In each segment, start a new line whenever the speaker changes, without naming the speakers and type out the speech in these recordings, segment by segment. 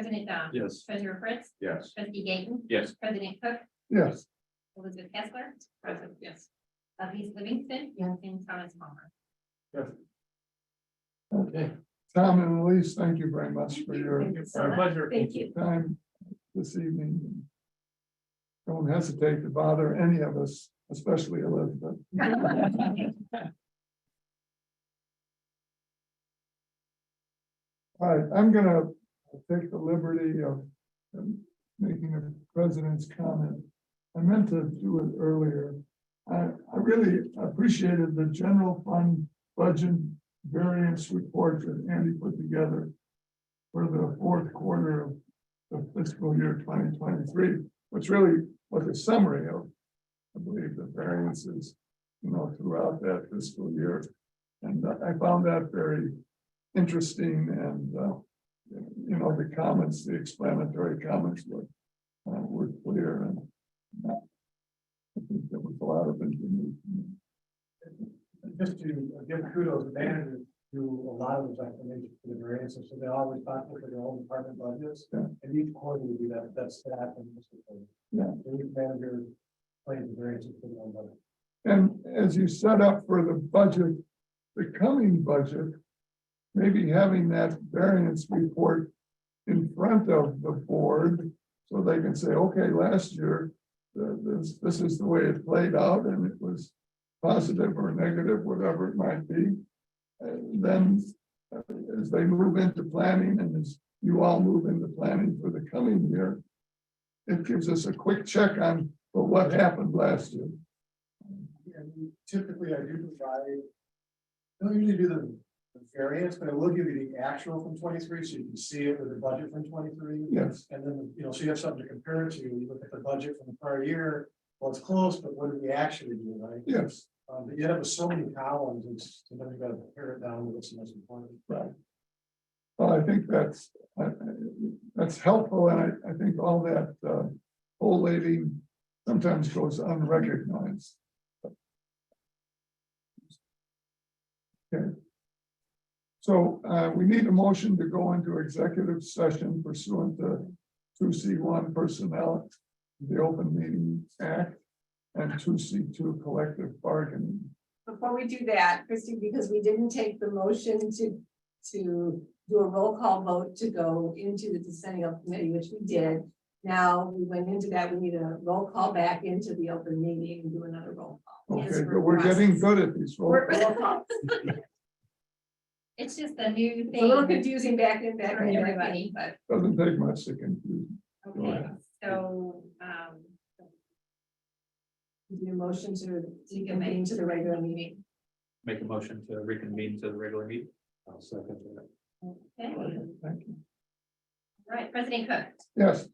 President Dom.
Yes.
Treasurer Fritz.
Yes.
Trustee Gayton.
Yes.
President Cook.
Yes.
Elizabeth Kessler. President, yes. Elise Livingston. And Thomas Palmer.
Okay, Tom and Elise, thank you very much for your
Our pleasure.
Thank you.
time this evening. Don't hesitate to bother any of us, especially Elizabeth. All right, I'm gonna take the liberty of um, making a president's comment. I meant to do it earlier. I, I really appreciated the general fund budget variance report that Andy put together for the fourth quarter of the fiscal year twenty twenty-three, which really was a summary of, I believe, the variances, you know, throughout that fiscal year. And I found that very interesting and, uh, you know, the comments, the explanatory comments were, uh, were clear and uh, I think there was a lot of information.
just to give kudos to managers do a lot of those explanations for the variances, so they always talk for their own department budgets.
Yeah.
And each quarter we do that, that's staff and. this is the-
Yeah.
the lead manager plays the variances for their own budget.
And as you set up for the budget, the coming budget, maybe having that variance report in front of the board, so they can say, okay, last year, uh, this, this is the way it played out, and it was positive or negative, whatever it might be. And then, uh, as they move into planning, and as you all move into planning for the coming year, it gives us a quick check on, well, what happened last year?
And typically I do provide, I don't usually do the the variance, but I will give you the actual from twenty-three, so you can see it with the budget from twenty-three.
Yes.
And then, you know, so you have something to compare it to, you look at the budget from the prior year, well, it's close, but what did we actually do, right?
Yes,
Um, but yet it was so many columns, it's, you know, you gotta pare it down to what's most important.
well, I think that's, I- I- that's helpful, and I, I think all that, uh, old lady sometimes goes unrecognized. Okay. So, uh, we need a motion to go into executive session pursuant to two C one personnel, the Open Meeting Act, and two C two collective bargaining.
Before we do that, Christy, because we didn't take the motion to, to do a roll call vote to go into the decennial committee, which we did. Now, we went into that, we need a roll call back into the open meeting and do another roll call.
Okay, but we're getting good at these. roll
We're-
call.
It's just a new
It's a little
thing.
confusing back and back
For
and
everybody.
everything, but
Doesn't take much to confuse.
Okay, so, um,
we need a motion to,
you
to
can
convene
make
to the regular meeting.
Make a motion to reconvene to the regular meeting. I'll second that.
okay, all
Thank you.
right, President Cook,
Yes,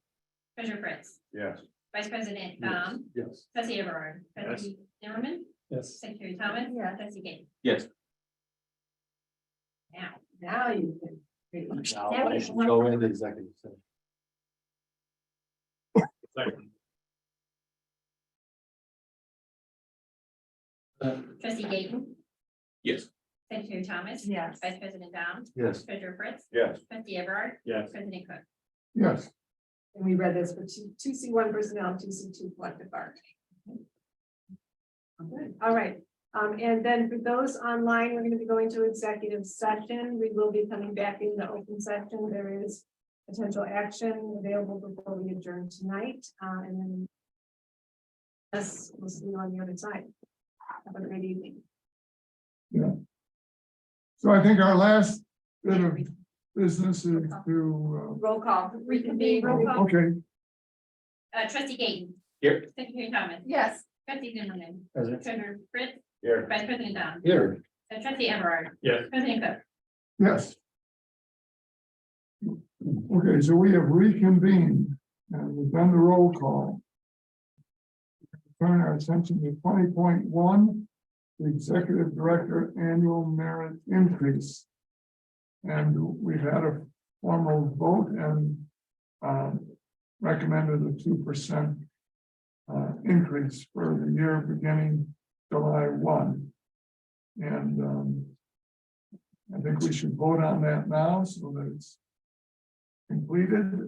Treasurer Fritz,
Yes.
Vice President Dom,
Yes.
Trustee Everard,
Yes.
Trustee Zimmerman,
Yes.
Secretary Thomas.
Yes.
Trustee Gayton.
Yes.
Now,
Now you can.
That was one-
Go into executive session. Second.
Trustee Gayton,
Yes.
Secretary Thomas.
Yes.
Vice President Dom,
Yes.
Treasurer Fritz,
Yes.
Trustee Everard,
Yes.
President Cook.
yes.
And we read this for two, two C one personnel, two C two collective bargaining. Okay, All right, um, and then for those online, we're gonna be going to executive session. We will be coming back in the open session. There is potential action available before we adjourn tonight, uh, and then us, we'll see you on the other side. Have a great evening.
So I think our last bit of business is to,
Roll call.
Reconvene, roll
uh,
call.
okay,
Uh, Trustee Gayton.
Here.
Secretary Thomas.
Yes.
Trustee Zimmerman,
Present.
Treasurer Fritz,
Here.
Vice President Dom,
Here.
uh, Trustee Everard,
Yes.
President Cook.
yes. Okay, so we have reconvened and we've done the roll call. Turn our attention to twenty point one, the executive director annual merit increase. And we've had a formal vote and um, recommended a two percent uh, increase for the year beginning July one. And um, I think we should vote on that now so that it's completed